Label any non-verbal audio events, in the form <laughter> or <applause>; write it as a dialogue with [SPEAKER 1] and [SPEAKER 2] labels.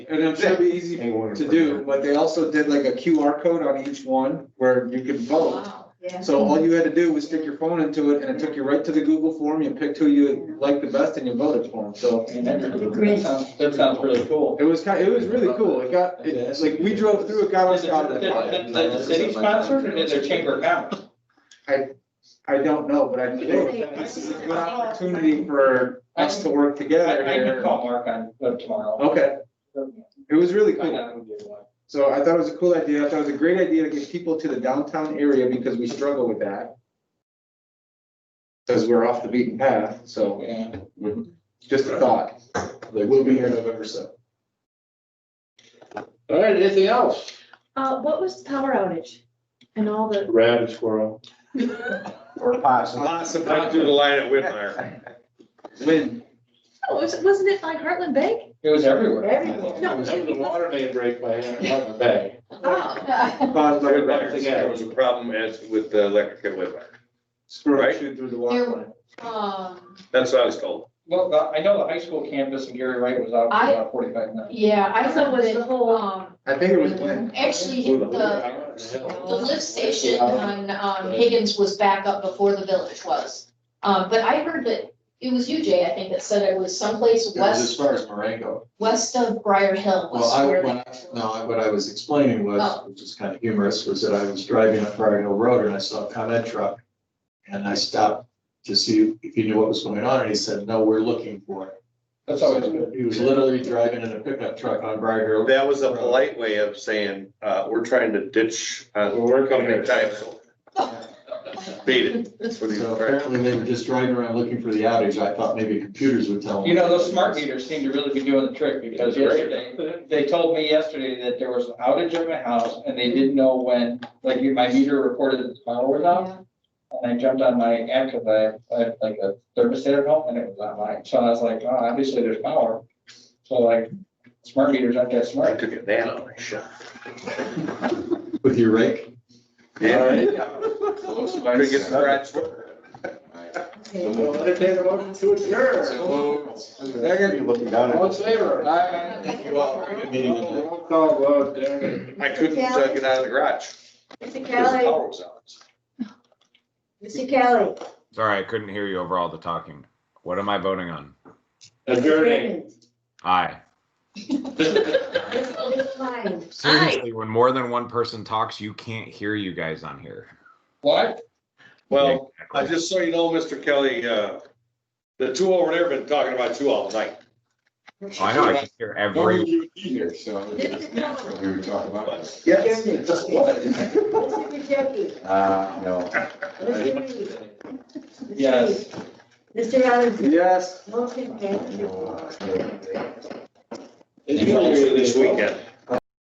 [SPEAKER 1] and I'm sure it'd be easy
[SPEAKER 2] Anyone
[SPEAKER 1] to do, but they also did like a QR code on each one where you could vote.
[SPEAKER 3] Wow, yeah.
[SPEAKER 1] So all you had to do was stick your phone into it and it took you right to the Google form. You picked who you liked the best and you voted for them. So
[SPEAKER 3] Great.
[SPEAKER 4] That sounds really cool.
[SPEAKER 1] it was kind, it was really cool. It got, it, like, we drove through, it got us out of
[SPEAKER 4] Did-
[SPEAKER 1] the.
[SPEAKER 4] did- did the city sponsored or did their chamber of commerce?
[SPEAKER 1] I don't know, but I think this is a good opportunity for us to work
[SPEAKER 4] I,
[SPEAKER 1] together
[SPEAKER 4] I can
[SPEAKER 1] here.
[SPEAKER 4] call Mark on, uh, tomorrow.
[SPEAKER 1] Okay, it was really cool.
[SPEAKER 4] Find out who did what.
[SPEAKER 1] So I thought it was a cool idea. I thought it was a great idea to get people to the downtown area because we struggle with that. Because we're off the beaten path, so
[SPEAKER 4] Yeah.
[SPEAKER 1] just a thought.
[SPEAKER 2] We'll be here November seventh.
[SPEAKER 5] All right, anything else?
[SPEAKER 3] Uh, what was the power outage and all the? <laughs> oh,
[SPEAKER 5] Rabbit squirrel.
[SPEAKER 2] Or possibly.
[SPEAKER 1] Lots of
[SPEAKER 5] Right through the line at Whitmire.
[SPEAKER 1] Win.
[SPEAKER 3] Oh, was- wasn't it like Heartland Bank?
[SPEAKER 4] It was everywhere.
[SPEAKER 3] Everywhere.
[SPEAKER 5] It was up the water main break by Hannah Bay.
[SPEAKER 3] Oh.
[SPEAKER 1] Caused like a
[SPEAKER 5] Back
[SPEAKER 1] record.
[SPEAKER 5] together, it was a problem as with the electric at Whitmire.
[SPEAKER 1] Squirrel
[SPEAKER 5] Right.
[SPEAKER 1] shoot through the water.
[SPEAKER 6] Um,
[SPEAKER 5] That's what I was told.
[SPEAKER 4] Well, the- I know the high school campus in Gary Wright was out for
[SPEAKER 6] I-
[SPEAKER 4] about forty-five minutes.
[SPEAKER 6] yeah, I
[SPEAKER 3] So
[SPEAKER 6] thought
[SPEAKER 3] was the
[SPEAKER 6] that,
[SPEAKER 3] whole,
[SPEAKER 6] um,
[SPEAKER 1] I think it was Win.
[SPEAKER 6] actually, the, the lift station on, um, Higgins was back up before the village was. Um, but I heard that, it was you, Jay, I think, that said it was someplace
[SPEAKER 7] It was as
[SPEAKER 6] west,
[SPEAKER 7] far as Marengo.
[SPEAKER 6] west of Briar Hill. was
[SPEAKER 7] Well, I,
[SPEAKER 6] where
[SPEAKER 7] when,
[SPEAKER 6] the
[SPEAKER 7] I-
[SPEAKER 6] actual-
[SPEAKER 7] no, I- what I was explaining was,
[SPEAKER 6] Oh.
[SPEAKER 7] which is kind of humorous, was that I was driving up Briar Hill Road and I saw a comment truck. And I stopped to see if he knew what was going on, and he said, no, we're looking for it.
[SPEAKER 4] That's always good.
[SPEAKER 7] So He was literally driving in a pickup truck on Briar Hill.
[SPEAKER 5] That was a polite way of saying, uh, we're trying to ditch, uh,
[SPEAKER 2] We're
[SPEAKER 5] coming time, so beat it. That's what he
[SPEAKER 7] So
[SPEAKER 5] was trying.
[SPEAKER 7] apparently they were just driving around looking for the outage. I thought maybe computers would tell them.
[SPEAKER 4] You know, those smart meters seem to really be doing the trick because yesterday, they told me yesterday that there was an outage at my house and they didn't know when, like my meter reported that the power was
[SPEAKER 7] <laughs>
[SPEAKER 4] out. And I jumped on my app because I, I had like a thermostat at home and it was on mine. So I was like, oh, obviously there's power. So like, smart meters aren't that
[SPEAKER 5] I
[SPEAKER 4] smart.
[SPEAKER 5] took a nap on my shot.
[SPEAKER 7] With your rake.
[SPEAKER 5] Yeah. Couldn't get scratched.
[SPEAKER 2] We'll entertain a motion to adjourn.
[SPEAKER 1] Second.
[SPEAKER 2] Looking down.
[SPEAKER 5] All in favor?
[SPEAKER 2] Aye.
[SPEAKER 3] Thank
[SPEAKER 7] you all
[SPEAKER 3] oh.
[SPEAKER 7] for a good meeting tonight.
[SPEAKER 2] Roll call vote, Derek.
[SPEAKER 5] I couldn't uh, get out of the garage.
[SPEAKER 3] Mr.
[SPEAKER 5] The
[SPEAKER 3] Kelly,
[SPEAKER 5] power was out.
[SPEAKER 3] Mr. Kelly.
[SPEAKER 8] Sorry, I couldn't hear you over all the talking. What am I voting on?
[SPEAKER 2] Adjourning.
[SPEAKER 8] Aye.
[SPEAKER 3] It's fine.
[SPEAKER 8] Seriously, when more than one person talks, you can't hear you guys on here.
[SPEAKER 4] What?
[SPEAKER 5] Well,
[SPEAKER 8] Exactly.
[SPEAKER 5] I just so you know, Mr. Kelly, uh, the two over there have been talking about you all night.
[SPEAKER 8] Oh, I know, I can hear every,
[SPEAKER 2] Here, so.
[SPEAKER 3] This is Kelly.
[SPEAKER 2] We were talking about.
[SPEAKER 1] Yes.
[SPEAKER 3] Mr. Gajeki.
[SPEAKER 2] Uh, no.
[SPEAKER 3] Mr. Reed. Mr.
[SPEAKER 4] Yes.
[SPEAKER 3] Reed. Mr. Robinson.
[SPEAKER 1] Yes.
[SPEAKER 3] Motion carries.
[SPEAKER 2] No.
[SPEAKER 5] This weekend.